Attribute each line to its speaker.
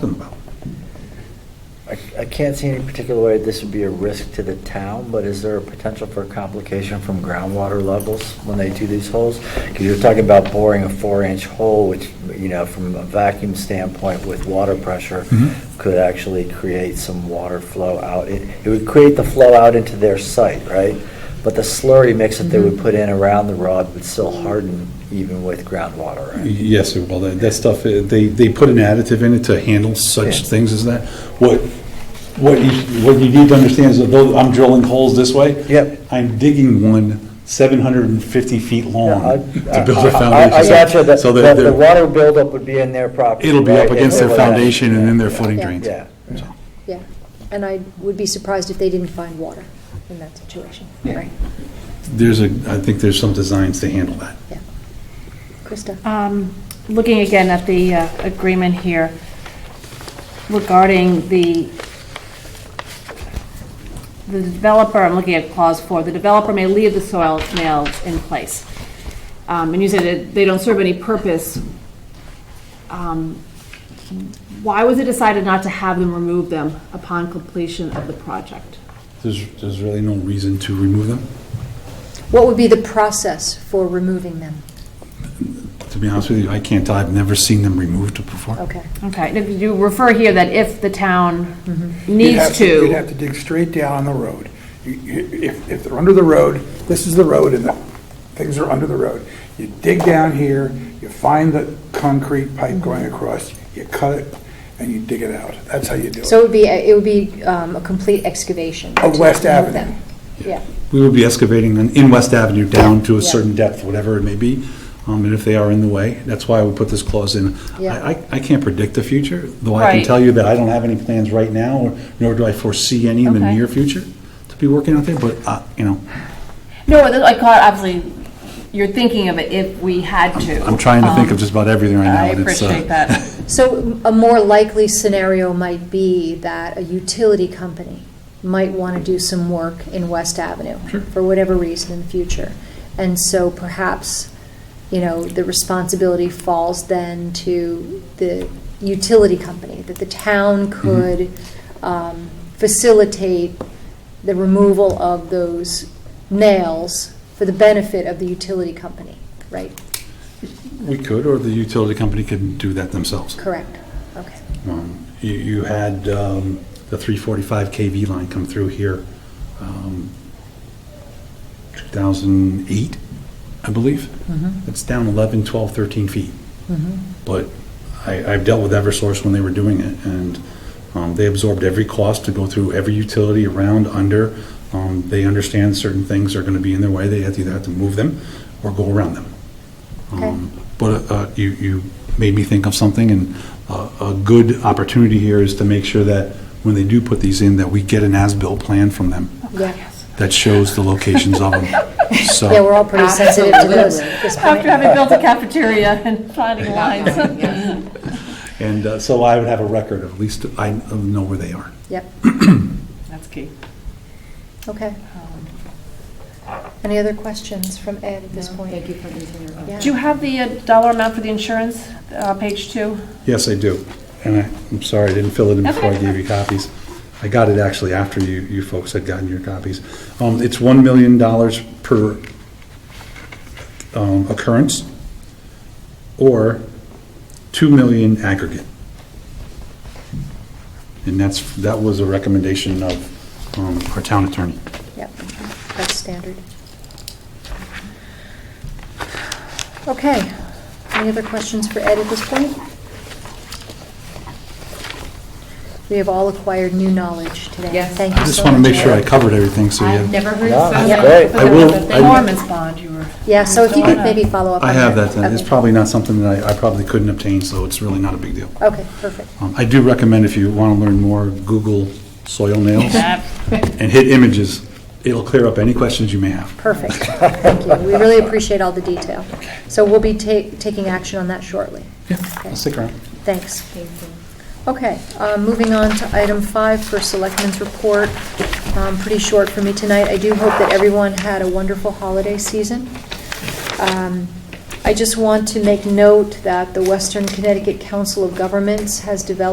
Speaker 1: them about?
Speaker 2: I I can't see any particular way this would be a risk to the town, but is there a potential for complication from groundwater levels when they do these holes? Because you're talking about boring a four-inch hole, which, you know, from a vacuum standpoint with water pressure,
Speaker 1: Mhm.
Speaker 2: could actually create some water flow out. It it would create the flow out into their site, right? But the slurry mix that they would put in around the rod would still harden even with groundwater, right?
Speaker 1: Yes, well, that, that stuff, uh, they, they put an additive in it to handle such
Speaker 2: Yeah.
Speaker 1: things as that. What, what you, what you need to understand is that though I'm drilling holes this way.
Speaker 2: Yep.
Speaker 1: I'm diggking one seven hundred and fifty feet long
Speaker 2: Yeah, I-
Speaker 1: to build
Speaker 2: I-
Speaker 1: a foundation.
Speaker 2: I- I gotcha, that,
Speaker 1: So
Speaker 2: that the
Speaker 1: they're-
Speaker 2: water buildup would be in their property.
Speaker 1: It'll be up
Speaker 2: right?
Speaker 1: against their
Speaker 2: It'll-
Speaker 1: foundation and in their footing
Speaker 3: Yeah.
Speaker 1: drains.
Speaker 2: Yeah.
Speaker 1: So.
Speaker 3: Yeah, and I would be surprised if they didn't find water in that situation, right?
Speaker 1: There's a, I think there's some designs to handle that.
Speaker 3: Yeah. Krista?
Speaker 4: Um, Looking again at the uh, agreement here regarding the, the developer, I'm looking at clause four, the developer may leave the soil nails in place. Um, And you said that they don't serve any purpose. Um, Why was it decided not to have them remove them upon completion of the project?
Speaker 1: There's, there's really no reason to remove them.
Speaker 3: What would be the process for removing them?
Speaker 1: To be honest with you, I can't, tell. I've never seen them removed before.
Speaker 3: Okay.
Speaker 4: Okay, and if you refer here that if the town
Speaker 5: You'd have
Speaker 4: needs to.
Speaker 5: You'd have Mm-hmm. to dig straight down on the road. You- you- If, if they're under the road, this is the road and the things are under the road. You dig down here, you find the concrete pipe going across, you cut it, and you dig it out. That's how you do it.
Speaker 3: So it would be, it would be um, a complete excavation.
Speaker 5: Of
Speaker 3: to
Speaker 5: West
Speaker 3: remove them.
Speaker 5: Avenue.
Speaker 3: Yeah,
Speaker 1: We would be excavating on- in West Avenue down to a
Speaker 3: Yeah.
Speaker 1: certain depth, whatever it may be, um, and if they are in the way, that's why we put this clause in.
Speaker 3: Yeah.
Speaker 1: I, I- I can't predict the future, though I can
Speaker 4: Right.
Speaker 1: tell you that I don't have any plans right now, or nor do I foresee any in the
Speaker 4: Okay.
Speaker 1: near future to be working out there, but, uh, you know,
Speaker 4: No, I caught, obviously, you're thinking of it if we had to.
Speaker 1: I'm trying to think of
Speaker 4: Um,
Speaker 1: just about everything right now.
Speaker 4: I
Speaker 1: and it's, uh,
Speaker 4: appreciate that.
Speaker 3: so a more likely scenario might be that a utility company might want to do some work in West Avenue for whatever reason in the future. And so perhaps, you know, the responsibility falls then to the utility company, that the town could um, facilitate the removal of those nails for the benefit of the utility company, right?
Speaker 1: We could, or the utility company could do that themselves.
Speaker 3: Correct, okay.
Speaker 1: Um, You, you had um, the 345 KV line come through here, um, 2008, I believe. It's down 11, 12, 13 feet. But I, I've dealt with Eversource when they were doing it, and um, they absorbed every cost to go through every utility around, under. Um, They understand certain things are going to be in their way, they have to either have to move them or go around them.
Speaker 3: Okay.
Speaker 1: Um, But uh, you, you made me think of something, and uh, a good opportunity here is to make sure that when they do put these in, that we get an as-built plan from them
Speaker 3: Yeah,
Speaker 1: that shows the locations of them.
Speaker 3: yeah, we're
Speaker 1: So,
Speaker 3: all pretty sensitive to those.
Speaker 6: Absolutely.
Speaker 3: this point.
Speaker 4: After having built a cafeteria and planning lines.
Speaker 1: and uh, so I would have a record, of at least I know where they are.
Speaker 3: Yep,
Speaker 4: That's key.
Speaker 3: okay. Any other questions from Ed at this point?
Speaker 6: Thank you for answering our
Speaker 3: Yeah.
Speaker 4: Do you have the uh, dollar amount for the insurance, uh, page two?
Speaker 1: Yes, I do. And I, I'm sorry, I didn't fill it in before I gave you copies. I got it actually after you, you folks had gotten your copies. Um, it's $1 million per um, occurrence or 2 million aggregate. And that's, that was a recommendation of um, our town attorney.
Speaker 3: Yep, that's standard. Okay, any other questions for Ed at this point? We have all acquired new knowledge today.
Speaker 6: Yes.
Speaker 3: Thank
Speaker 1: I
Speaker 3: you
Speaker 1: just
Speaker 3: so
Speaker 1: want to
Speaker 3: much,
Speaker 1: make sure I
Speaker 3: Ed.
Speaker 1: covered everything, so
Speaker 6: I've
Speaker 1: you,
Speaker 6: never heard
Speaker 2: No,
Speaker 6: so
Speaker 2: that's
Speaker 6: much.
Speaker 2: great.
Speaker 4: But
Speaker 1: I
Speaker 4: there
Speaker 1: will-
Speaker 4: was a
Speaker 1: I-
Speaker 4: Performance bond you were.
Speaker 3: Yeah, so if you could
Speaker 4: I-
Speaker 3: maybe follow up on
Speaker 1: I
Speaker 3: that.
Speaker 1: have that, then. it's
Speaker 3: Okay.
Speaker 1: probably not something that I, I probably couldn't obtain, so it's really not a big deal.
Speaker 3: Okay, perfect.
Speaker 1: Um, I do recommend if you want to learn more, Google soil nails and hit images. It'll clear up any questions you may have.
Speaker 3: Perfect. Thank you. We really appreciate all the detail. So we'll be ta- taking action on that shortly.
Speaker 1: Yeah, I'll stick around.
Speaker 3: Thanks. Okay, um, moving on to item five for Selectmen's Report. Um, Pretty short for me tonight. I do hope that everyone had a wonderful holiday season. Um, I just want to make note that the Western Connecticut Council of Governments has developed